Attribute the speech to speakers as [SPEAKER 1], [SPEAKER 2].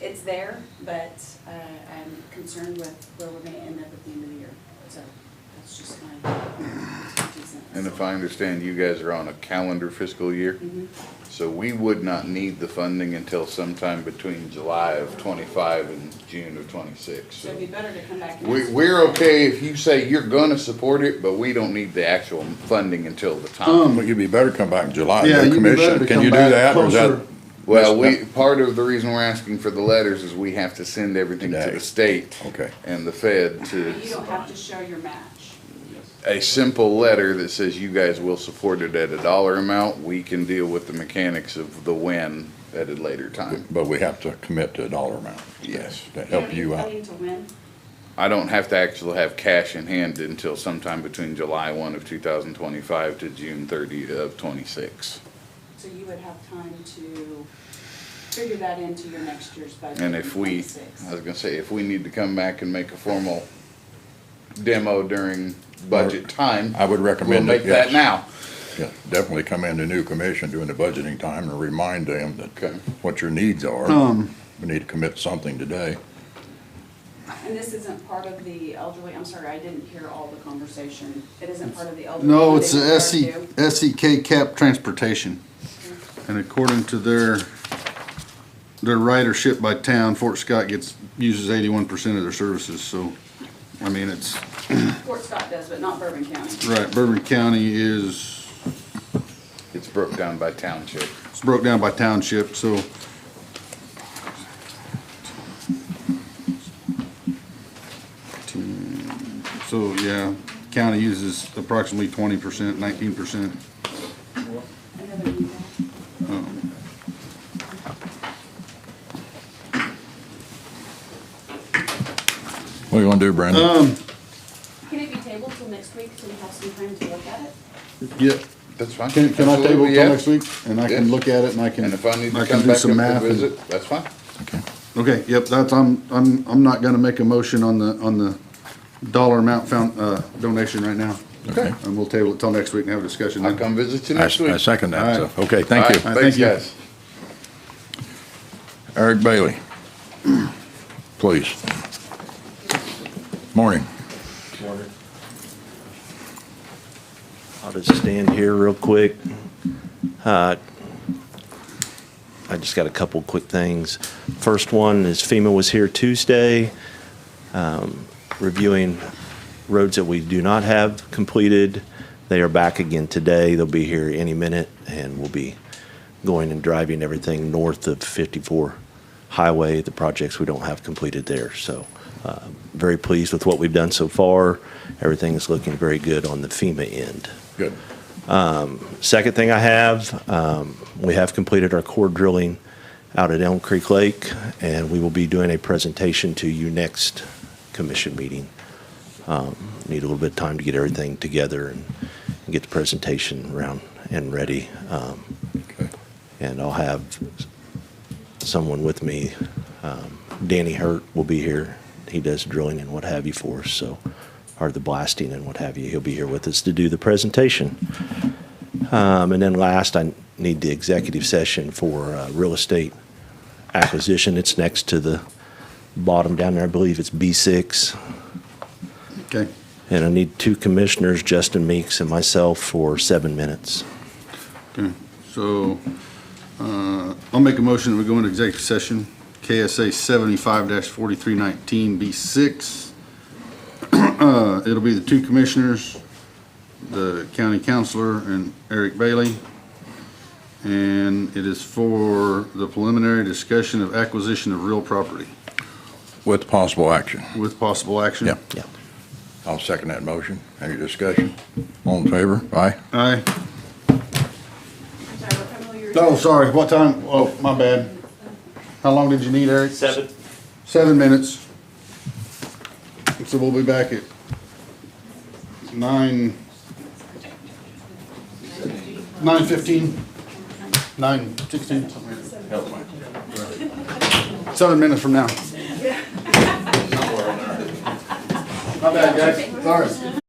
[SPEAKER 1] it's there, but uh, I'm concerned with where we're gonna end up at the end of the year. So that's just my.
[SPEAKER 2] And if I understand, you guys are on a calendar fiscal year,
[SPEAKER 1] Mhm.
[SPEAKER 2] so we would not need the funding until sometime between July of twenty-five and June of twenty-six.
[SPEAKER 1] So
[SPEAKER 2] So
[SPEAKER 1] it'd be better to come back. and
[SPEAKER 2] We,
[SPEAKER 1] ask.
[SPEAKER 2] we're okay if you say you're gonna support it, but we don't need the actual funding until the time.
[SPEAKER 3] Um, you'd be better come back in July,
[SPEAKER 4] Yeah,
[SPEAKER 3] no
[SPEAKER 4] you'd be better
[SPEAKER 3] commission.
[SPEAKER 4] to
[SPEAKER 3] Can
[SPEAKER 4] come
[SPEAKER 3] you do
[SPEAKER 4] back
[SPEAKER 3] that? or is that-
[SPEAKER 4] closer.
[SPEAKER 2] Well, we, part of the reason we're asking for the letters is we have to send everything to
[SPEAKER 3] Today.
[SPEAKER 2] the state
[SPEAKER 3] Okay.
[SPEAKER 2] and the Fed to
[SPEAKER 1] You don't have to show your match.
[SPEAKER 2] a simple letter that says you guys will support it at a dollar amount. We can deal with the mechanics of the when at a later time.
[SPEAKER 3] But we have to commit to a dollar amount.
[SPEAKER 2] Yes.
[SPEAKER 3] To help
[SPEAKER 1] don't
[SPEAKER 3] you
[SPEAKER 1] need
[SPEAKER 3] out.
[SPEAKER 1] funding to win.
[SPEAKER 2] I don't have to actually have cash in hand until sometime between July one of two thousand twenty-five to June thirty of twenty-six.
[SPEAKER 1] So you would have time to figure that into your next year's budget.
[SPEAKER 2] And if we, I was gonna say, if we need to come back and make a formal demo during budget time,
[SPEAKER 3] I would
[SPEAKER 2] we'll
[SPEAKER 3] recommend
[SPEAKER 2] make
[SPEAKER 3] it,
[SPEAKER 2] that
[SPEAKER 3] yes.
[SPEAKER 2] now.
[SPEAKER 3] Yeah, Definitely come into new commission during the budgeting time and remind them that
[SPEAKER 2] Okay.
[SPEAKER 3] what your needs are.
[SPEAKER 4] Um,
[SPEAKER 3] We need to commit something today.
[SPEAKER 1] And this isn't part of the elderly, I'm sorry, I didn't hear all the conversation. It isn't part of the elderly.
[SPEAKER 4] no, it's E,
[SPEAKER 1] They
[SPEAKER 4] the
[SPEAKER 2] E.
[SPEAKER 1] refer
[SPEAKER 4] SE,
[SPEAKER 1] to.
[SPEAKER 4] SEK cap transportation. And according to their, their ridership by town, Fort Scott gets, uses eighty-one percent of their services, so, I mean, it's,
[SPEAKER 1] Fort Scott does, but not Bourbon County.
[SPEAKER 4] right, Bourbon County is,
[SPEAKER 2] It's broke down by township.
[SPEAKER 4] it's broke down by township, so. So, yeah, county uses approximately twenty percent, nineteen percent.
[SPEAKER 1] Another email.
[SPEAKER 3] What do you want to do, Brandon?
[SPEAKER 4] Um.
[SPEAKER 1] Can it be tabled till next week so we have some time to look at it?
[SPEAKER 4] Yep.
[SPEAKER 2] That's fine.
[SPEAKER 4] Can, can I table
[SPEAKER 2] Absolutely,
[SPEAKER 4] it
[SPEAKER 2] yeah.
[SPEAKER 4] till next week? And I can
[SPEAKER 2] Yeah.
[SPEAKER 4] look at it and I can,
[SPEAKER 2] And if I need to come
[SPEAKER 4] I can do
[SPEAKER 2] back up
[SPEAKER 4] some
[SPEAKER 2] and
[SPEAKER 4] math. and-
[SPEAKER 2] visit, that's fine.
[SPEAKER 3] Okay.
[SPEAKER 4] Okay, yep, that's, I'm, I'm, I'm not gonna make a motion on the, on the dollar amount found, uh, donation right now.
[SPEAKER 3] Okay.
[SPEAKER 4] And we'll table it till next week and have a discussion
[SPEAKER 2] I'll
[SPEAKER 4] then.
[SPEAKER 2] come visit you
[SPEAKER 3] I
[SPEAKER 2] next
[SPEAKER 3] s-
[SPEAKER 2] week.
[SPEAKER 3] I second that,
[SPEAKER 4] All right.
[SPEAKER 3] so, okay, thank
[SPEAKER 2] All
[SPEAKER 3] you.
[SPEAKER 2] right,
[SPEAKER 4] Thank
[SPEAKER 2] Thanks,
[SPEAKER 4] you.
[SPEAKER 2] guys.
[SPEAKER 3] Eric Bailey, please. Morning.
[SPEAKER 5] I'll just stand here real quick. Uh, I just got a couple quick things. First one is FEMA was here Tuesday um, reviewing roads that we do not have completed. They are back again today. They'll be here any minute, and we'll be going and driving everything north of 54 Highway, the projects we don't have completed there. So uh, very pleased with what we've done so far. Everything is looking very good on the FEMA end.
[SPEAKER 3] Good.
[SPEAKER 5] Second thing I have, um, we have completed our core drilling out at Elm Creek Lake, and we will be doing a presentation to you next commission meeting. Um, Need a little bit of time to get everything together and get the presentation around and ready. Um,
[SPEAKER 3] Okay.
[SPEAKER 5] and I'll have someone with me. Um, Danny Hurt will be here. He does drilling and what have you for us, so, or the blasting and what have you. He'll be here with us to do the presentation. Um, and then last, I need the executive session for uh, real estate acquisition. It's next to the bottom down there. I believe it's B6.
[SPEAKER 4] Okay,
[SPEAKER 5] And I need two commissioners, Justin Meeks and myself, for seven minutes.
[SPEAKER 4] so, uh, I'll make a motion that we go into executive session, KSA seventy-five forty-three nineteen B six. Uh, it'll be the two commissioners, the county counselor and Eric Bailey. And it is for the preliminary discussion of acquisition of real property
[SPEAKER 3] With possible action.
[SPEAKER 4] with possible action.
[SPEAKER 3] Yeah.
[SPEAKER 5] Yeah.
[SPEAKER 3] I'll second that motion. Any discussion? All in favor? Aye.
[SPEAKER 4] Aye.
[SPEAKER 1] I'm sorry, what time will your?
[SPEAKER 4] No, sorry, what time? Oh, my bad. How long did you need, Eric?
[SPEAKER 5] Seven.
[SPEAKER 4] Seven minutes. So we'll be back at nine. Nine fifteen, nine sixteen, something like that. Seven minutes from now. My bad, guys, sorry.